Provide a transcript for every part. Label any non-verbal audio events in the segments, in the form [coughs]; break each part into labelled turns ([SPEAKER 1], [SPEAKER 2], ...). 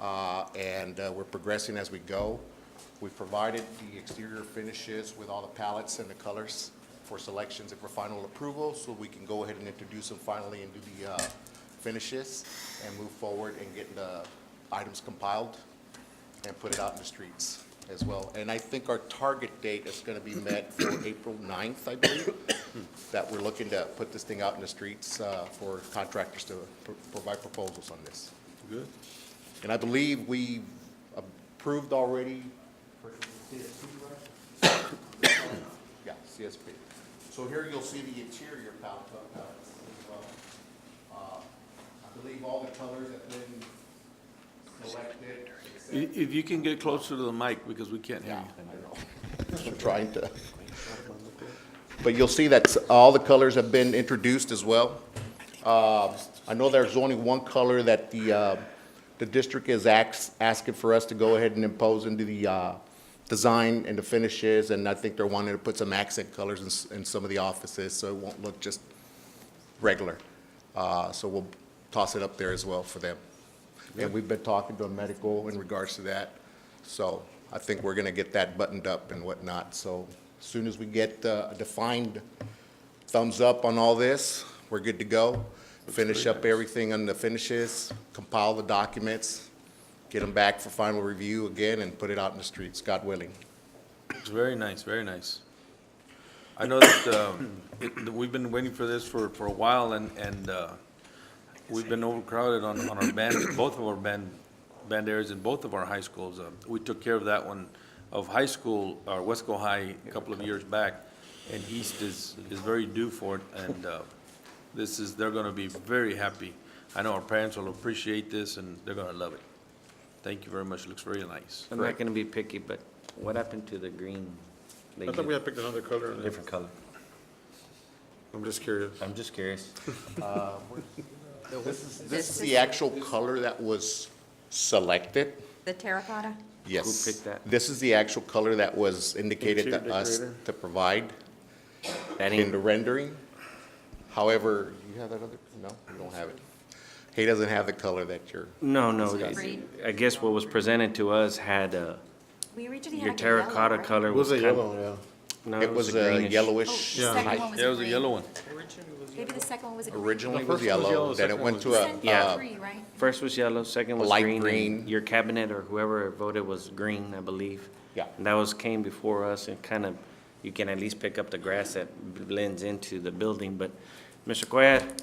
[SPEAKER 1] uh, and uh, we're progressing as we go. We provided the exterior finishes with all the palettes and the colors for selections and for final approval, so we can go ahead and introduce them finally and do the uh, finishes and move forward and get the items compiled and put it out in the streets as well. And I think our target date is going to be met for April 9th, I believe, that we're looking to put this thing out in the streets uh, for contractors to pro- provide proposals on this.
[SPEAKER 2] Good.
[SPEAKER 1] And I believe we approved already. Yeah, CSP. So here you'll see the interior palette uh, palettes as well. Uh, I believe all the colors have been selected. except-
[SPEAKER 2] If, if you can get closer to the mic, because we can't hear
[SPEAKER 1] Yeah,
[SPEAKER 2] you.
[SPEAKER 1] I know. I'm trying to. But you'll see that s- all the colors have been introduced as well. Uh, I know there's only one color that the, uh, the district is ax- asking for us to go ahead and impose into the uh, design and the finishes, and I think they're wanting to put some accent colors in s- in some of the offices, so it won't look just regular. Uh, So we'll toss it up there as well for them. And we've been talking to a medical in regards to that. So I think we're going to get that buttoned up and whatnot. So as soon as we get uh, a defined thumbs up on all this, we're good to go. Finish up everything on the finishes, compile the documents, get them back for final review again, and put it out in the streets, God willing.
[SPEAKER 2] It's very nice, very nice. I know that, um, [coughs] it- that we've been waiting for this for, for a while, and, and, uh, we've been overcrowded on, on our band, both of our band, band areas in both of our high schools. Uh, We took care of that one of high school, or Wesco High, a couple of years back, and East is, is very due for it, and, uh, this is, they're gonna be very happy. I know our parents will appreciate this, and they're gonna love it. Thank you very much, looks very nice.
[SPEAKER 3] I'm not gonna be picky, but what happened to the green? They
[SPEAKER 4] I thought
[SPEAKER 3] did
[SPEAKER 4] we had picked another color. on it.
[SPEAKER 3] Different color.
[SPEAKER 4] I'm just curious.
[SPEAKER 3] I'm just curious.
[SPEAKER 1] This is, this is the actual color that was selected.
[SPEAKER 5] The terracotta?
[SPEAKER 1] Yes.
[SPEAKER 3] picked that?
[SPEAKER 1] This is the actual color that was indicated to
[SPEAKER 4] Interior
[SPEAKER 1] us
[SPEAKER 4] decorator.
[SPEAKER 1] to provide.
[SPEAKER 3] That
[SPEAKER 1] in the
[SPEAKER 3] ain't,
[SPEAKER 1] rendering. However, you have that other, no, you don't have it. He doesn't have the color that you're,
[SPEAKER 3] no, no,
[SPEAKER 5] Green.
[SPEAKER 3] I guess what was presented to us had, uh,
[SPEAKER 5] We originally had
[SPEAKER 3] your
[SPEAKER 5] like a yellow,
[SPEAKER 3] terracotta
[SPEAKER 5] right?
[SPEAKER 3] color
[SPEAKER 4] It
[SPEAKER 3] was
[SPEAKER 4] was a
[SPEAKER 3] kind.
[SPEAKER 4] yellow, yeah.
[SPEAKER 3] no,
[SPEAKER 1] it was
[SPEAKER 3] a
[SPEAKER 1] a
[SPEAKER 3] greenish.
[SPEAKER 5] Oh,
[SPEAKER 1] yellowish.
[SPEAKER 5] the second one
[SPEAKER 1] height.
[SPEAKER 5] was a
[SPEAKER 2] There was a
[SPEAKER 5] green.
[SPEAKER 2] yellow one.
[SPEAKER 5] Maybe the second one was a green.
[SPEAKER 1] Originally
[SPEAKER 4] The
[SPEAKER 1] was
[SPEAKER 4] first one was yellow,
[SPEAKER 1] yellow,
[SPEAKER 4] the
[SPEAKER 1] then it
[SPEAKER 4] second
[SPEAKER 1] went
[SPEAKER 4] one
[SPEAKER 1] to
[SPEAKER 4] was
[SPEAKER 1] a,
[SPEAKER 5] Sent
[SPEAKER 1] uh,
[SPEAKER 5] three, right?
[SPEAKER 3] First was yellow, second was
[SPEAKER 1] Light
[SPEAKER 3] green. and
[SPEAKER 1] green.
[SPEAKER 3] Your cabinet or whoever voted was green, I believe.
[SPEAKER 1] Yeah.
[SPEAKER 3] And that was, came before us and kind of, you can at least pick up the grass that blends into the building, but Mr. Quiet,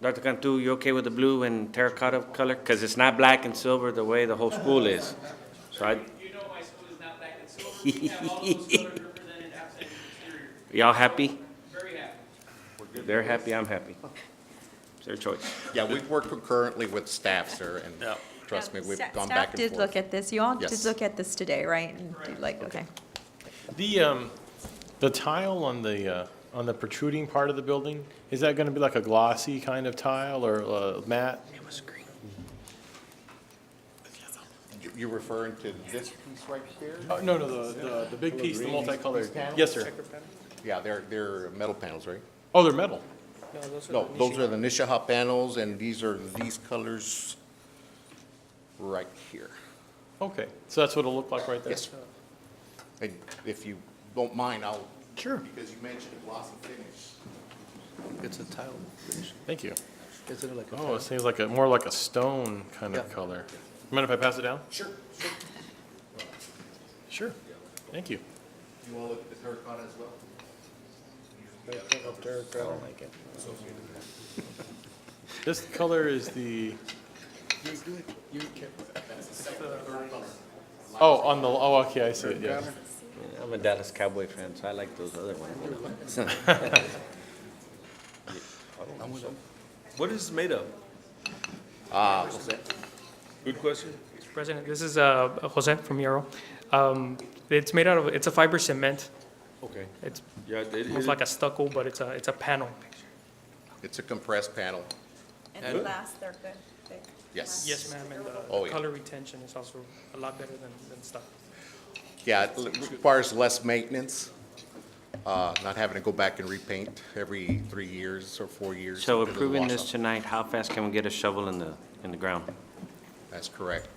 [SPEAKER 3] Dr. Cantu, you okay with the blue and terracotta color? Because it's not black and silver the way the whole school is. So I,
[SPEAKER 6] You know my school is not black and silver. We have all those colors represented outside the exterior.
[SPEAKER 3] y'all happy?
[SPEAKER 6] Very happy.
[SPEAKER 3] They're happy, I'm happy. It's their choice.
[SPEAKER 1] yeah, we've worked concurrently with staff, sir, and trust me, we've
[SPEAKER 5] Sta-
[SPEAKER 1] gone back and
[SPEAKER 5] Staff did look
[SPEAKER 1] forth.
[SPEAKER 5] at this, you all did
[SPEAKER 1] Yes.
[SPEAKER 5] look at this today, right? And did like, okay.
[SPEAKER 4] The, um, the tile on the, uh, on the protruding part of the building, is that gonna be like a glossy kind of tile or, uh, matte?
[SPEAKER 1] You- You're referring to this piece right there?
[SPEAKER 4] Oh, no, no, the, the, the big piece, the multicolored. Yes, sir.
[SPEAKER 1] Yeah, they're, they're metal panels, right?
[SPEAKER 4] Oh, they're metal.
[SPEAKER 1] No, those are the Nishaha panels, and these are these colors right here.
[SPEAKER 4] Okay, so that's what it'll look like right there?
[SPEAKER 1] Yes, sir. And if you don't mind, I'll.
[SPEAKER 4] Sure.
[SPEAKER 1] Because you mentioned a glossy finish.
[SPEAKER 7] It's a tile finish.
[SPEAKER 4] Thank you.
[SPEAKER 7] Is it like a
[SPEAKER 4] Oh,
[SPEAKER 7] tile?
[SPEAKER 4] it seems like a, more like a stone kind of
[SPEAKER 7] Yeah.
[SPEAKER 4] color. Mind if I pass it down?
[SPEAKER 1] Sure.
[SPEAKER 4] Sure. Thank you.
[SPEAKER 1] You want to look at the terracotta as well?
[SPEAKER 4] This color is the, oh, on the, oh, okay, I see it, yeah.
[SPEAKER 3] I'm a Dallas Cowboy fan, so I like those other ones.
[SPEAKER 2] What is it made of?
[SPEAKER 1] Ah, what's that?
[SPEAKER 2] Good question.
[SPEAKER 6] Mr. President, this is uh, Jose from Yarrow. Um, It's made out of, it's a fiber cement.
[SPEAKER 2] Okay.
[SPEAKER 6] It's
[SPEAKER 2] Yeah, it it
[SPEAKER 6] almost
[SPEAKER 2] is.
[SPEAKER 6] like a stucco, but it's a, it's a panel.
[SPEAKER 1] It's a compressed panel,
[SPEAKER 5] And the last, they're good, thick.
[SPEAKER 1] yes.
[SPEAKER 6] Yes, ma'am, and
[SPEAKER 1] Oh,
[SPEAKER 6] the
[SPEAKER 1] yeah.
[SPEAKER 6] color retention is also a lot better than, than stucco.
[SPEAKER 1] Yeah, it l- requires less maintenance, uh, not having to go back and repaint every three years or four years.
[SPEAKER 3] So
[SPEAKER 1] because of the
[SPEAKER 3] approving
[SPEAKER 1] wash
[SPEAKER 3] this
[SPEAKER 1] off.
[SPEAKER 3] tonight, how fast can we get a shovel in the, in the ground?
[SPEAKER 1] That's correct.